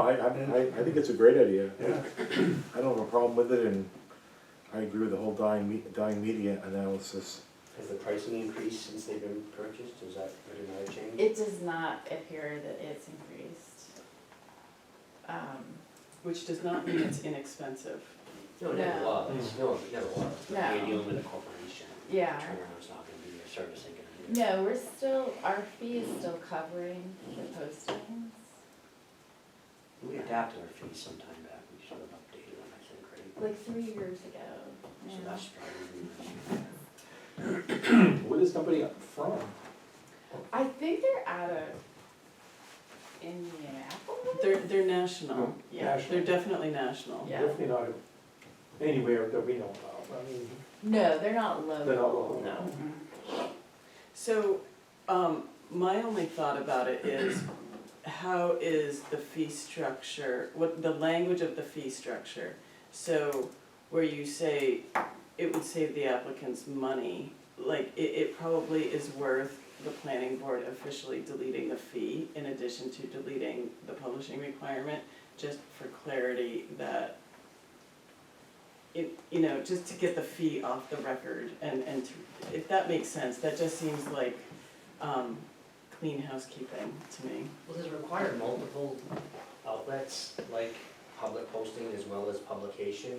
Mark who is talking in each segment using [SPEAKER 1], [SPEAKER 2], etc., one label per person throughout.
[SPEAKER 1] I, I, I- I think it's a great idea.
[SPEAKER 2] Yeah.
[SPEAKER 1] I don't have a problem with it, and I agree with the whole dying, me- dying media analysis.
[SPEAKER 3] Has the pricing increased since they've been purchased, is that another change?
[SPEAKER 4] It does not appear that it's increased. Um,
[SPEAKER 5] which does not mean it's inexpensive.
[SPEAKER 3] No,
[SPEAKER 4] No.
[SPEAKER 3] never was, no, it never was, but
[SPEAKER 4] No.
[SPEAKER 3] you're dealing with a corporation.
[SPEAKER 4] Yeah.
[SPEAKER 3] Turnaround's not gonna be, your service ain't gonna be.
[SPEAKER 4] No, we're still, our fee is still covering the postings.
[SPEAKER 3] We adapted our fees sometime back, we sort of updated them, I think, right?
[SPEAKER 4] Like three years ago.
[SPEAKER 3] So
[SPEAKER 4] yeah.
[SPEAKER 3] that's probably.
[SPEAKER 6] Where is somebody from?
[SPEAKER 4] I think they're out of Indianapolis?
[SPEAKER 5] They're, they're national,
[SPEAKER 4] Yeah.
[SPEAKER 5] they're
[SPEAKER 6] National.
[SPEAKER 5] definitely national.
[SPEAKER 4] Yeah.
[SPEAKER 6] Definitely not anywhere that we know of, I mean,
[SPEAKER 4] No, they're not local.
[SPEAKER 6] they're not local.
[SPEAKER 4] No.
[SPEAKER 5] So, um, my only thought about it is, how is the fee structure, what, the language of the fee structure? So, where you say it would save the applicants money, like, it, it probably is worth the planning board officially deleting the fee in addition to deleting the publishing requirement, just for clarity that it, you know, just to get the fee off the record and, and to, if that makes sense, that just seems like, um, clean housekeeping to me.
[SPEAKER 3] Well, does it require multiple outlets, like public posting as well as publication?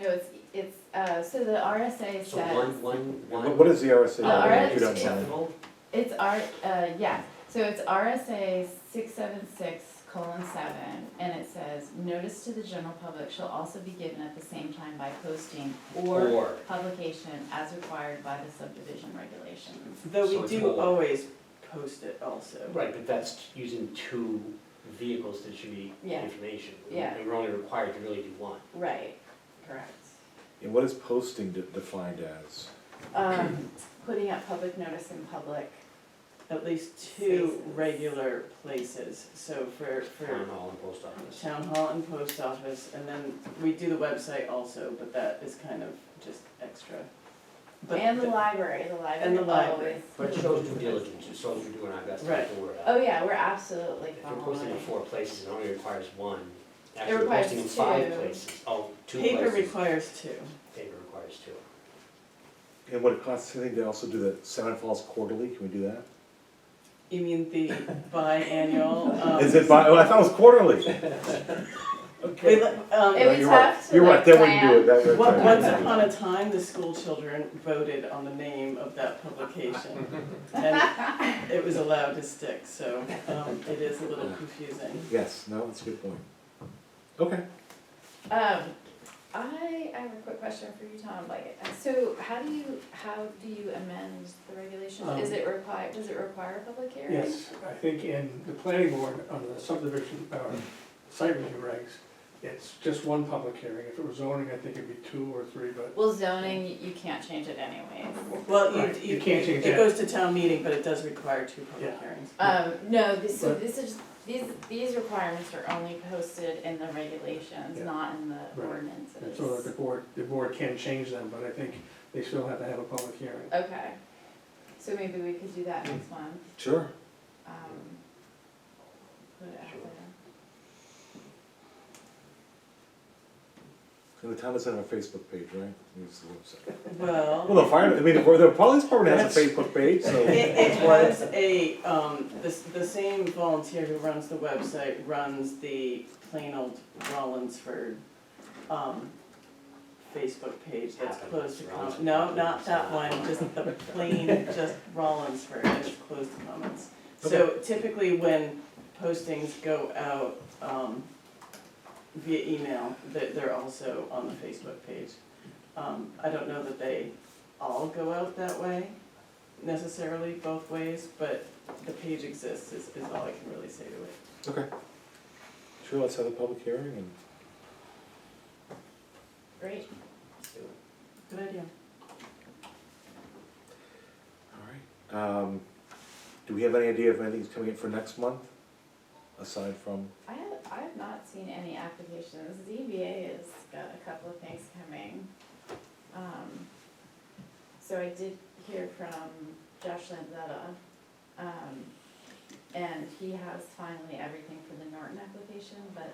[SPEAKER 4] No, it's, it's, uh, so the RSA
[SPEAKER 3] So one,
[SPEAKER 4] says,
[SPEAKER 3] one,
[SPEAKER 1] What-
[SPEAKER 3] one.
[SPEAKER 1] What is the RSA?
[SPEAKER 4] Uh,
[SPEAKER 1] I don't know if you don't
[SPEAKER 4] RSA.
[SPEAKER 1] know.
[SPEAKER 3] Acceptable?
[SPEAKER 4] it's R, uh, yeah, so it's RSA six seven six colon seven, and it says, notice to the general public shall also be given at the same time by posting or
[SPEAKER 3] Or,
[SPEAKER 4] publication as required by the subdivision regulations.
[SPEAKER 5] Though
[SPEAKER 3] So
[SPEAKER 5] we
[SPEAKER 3] it's
[SPEAKER 5] do
[SPEAKER 3] more.
[SPEAKER 5] always post it also.
[SPEAKER 3] right, but that's using two vehicles to distribute
[SPEAKER 4] Yeah.
[SPEAKER 3] information.
[SPEAKER 4] Yeah.
[SPEAKER 3] And we're only required to really do one.
[SPEAKER 4] Right, correct.
[SPEAKER 1] And what is posting de- defined as?
[SPEAKER 4] Um, putting up public notice in public,
[SPEAKER 5] At least two
[SPEAKER 4] Spaces.
[SPEAKER 5] regular places, so for,
[SPEAKER 3] Town
[SPEAKER 5] for
[SPEAKER 3] hall and post office.
[SPEAKER 5] town hall and post office, and then we do the website also, but that is kind of just extra. But
[SPEAKER 4] and the library, the
[SPEAKER 5] And
[SPEAKER 4] library
[SPEAKER 5] the library.
[SPEAKER 4] always.
[SPEAKER 3] But it shows due diligence, it shows we're doing our best to get the word out.
[SPEAKER 4] Oh, yeah, we're absolutely
[SPEAKER 3] If you're posting in
[SPEAKER 4] following.
[SPEAKER 3] four places, it only requires one. Actually, we're
[SPEAKER 4] requires
[SPEAKER 3] posting in five
[SPEAKER 4] two.
[SPEAKER 3] places. Oh, two
[SPEAKER 5] Paper
[SPEAKER 3] places.
[SPEAKER 5] requires two.
[SPEAKER 3] Paper requires two.
[SPEAKER 1] And would it cost anything to also do the Seven Falls Quarterly? Can we do that?
[SPEAKER 5] You mean the biannual, um.
[SPEAKER 1] Is it by, oh, I thought it was quarterly.
[SPEAKER 5] They,
[SPEAKER 1] Okay.
[SPEAKER 5] let- um,
[SPEAKER 4] It
[SPEAKER 1] No,
[SPEAKER 4] would
[SPEAKER 1] you're
[SPEAKER 4] have
[SPEAKER 1] right.
[SPEAKER 4] to,
[SPEAKER 1] You're
[SPEAKER 4] like,
[SPEAKER 1] right, that wouldn't do it,
[SPEAKER 4] plan.
[SPEAKER 1] that would.
[SPEAKER 5] Once once upon a time, the school children voted on the name of that publication, and it was allowed to stick, so um, it is a little confusing.
[SPEAKER 1] Yes, no, that's a good point. Okay.
[SPEAKER 4] Um, I, I have a quick question for you, Tom, like, so how do you, how do you amend the regulations? Is
[SPEAKER 6] Um,
[SPEAKER 4] it require, does it require a public hearing?
[SPEAKER 6] Yes, I think in the planning board, on the subdivision, uh, site review regs, it's just one public hearing. If it were zoning, I think it'd be two or three, but
[SPEAKER 4] Well, zoning, you- you can't change it anyways.
[SPEAKER 5] Well, you,
[SPEAKER 6] Right,
[SPEAKER 5] you,
[SPEAKER 6] you can't change
[SPEAKER 5] it
[SPEAKER 6] that.
[SPEAKER 5] goes to town meeting, but it does require two public
[SPEAKER 6] Yeah.
[SPEAKER 5] hearings.
[SPEAKER 4] Um, no, this, so
[SPEAKER 6] But-
[SPEAKER 4] this is, these, these requirements are only posted in the regulations,
[SPEAKER 6] Yeah.
[SPEAKER 4] not in the
[SPEAKER 6] Right.
[SPEAKER 4] ordinances.
[SPEAKER 6] it's sort of the board, the board can change them, but I think they still have to have a public hearing.
[SPEAKER 4] Okay, so maybe we could do that
[SPEAKER 6] Mm.
[SPEAKER 4] next month,
[SPEAKER 1] Sure.
[SPEAKER 4] um. Put it out
[SPEAKER 3] Sure.
[SPEAKER 4] there.
[SPEAKER 1] And the town doesn't have a Facebook page, right? Use the website.
[SPEAKER 5] Well,
[SPEAKER 1] Well, the fire, I mean, the the police department has a
[SPEAKER 5] That's-
[SPEAKER 1] Facebook page, so.
[SPEAKER 5] it, it has a, um, the, s- the same volunteer who runs the website runs the plain old Rollinsford, um, Facebook page that's
[SPEAKER 3] Happened.
[SPEAKER 5] closed to comments.
[SPEAKER 3] Rollinsford.
[SPEAKER 5] No, not that one, just the plain, just Rollinsford, it's closed to comments. So typically when postings go out, um, via email, they're, they're also on the Facebook page. Um, I don't know that they all go out that way necessarily both ways, but the page exists is, is all I can really say to it.
[SPEAKER 1] Okay. Sure, let's have a public hearing and.
[SPEAKER 4] Great,
[SPEAKER 5] Good idea.
[SPEAKER 1] All right. Um, do we have any idea if anything's coming in for next month? Aside from,
[SPEAKER 4] I have, I have not seen any applications, ZBA has got a couple of things coming. Um, so I did hear from Josh Lanzetta, um, and he has finally everything for the Norton application, but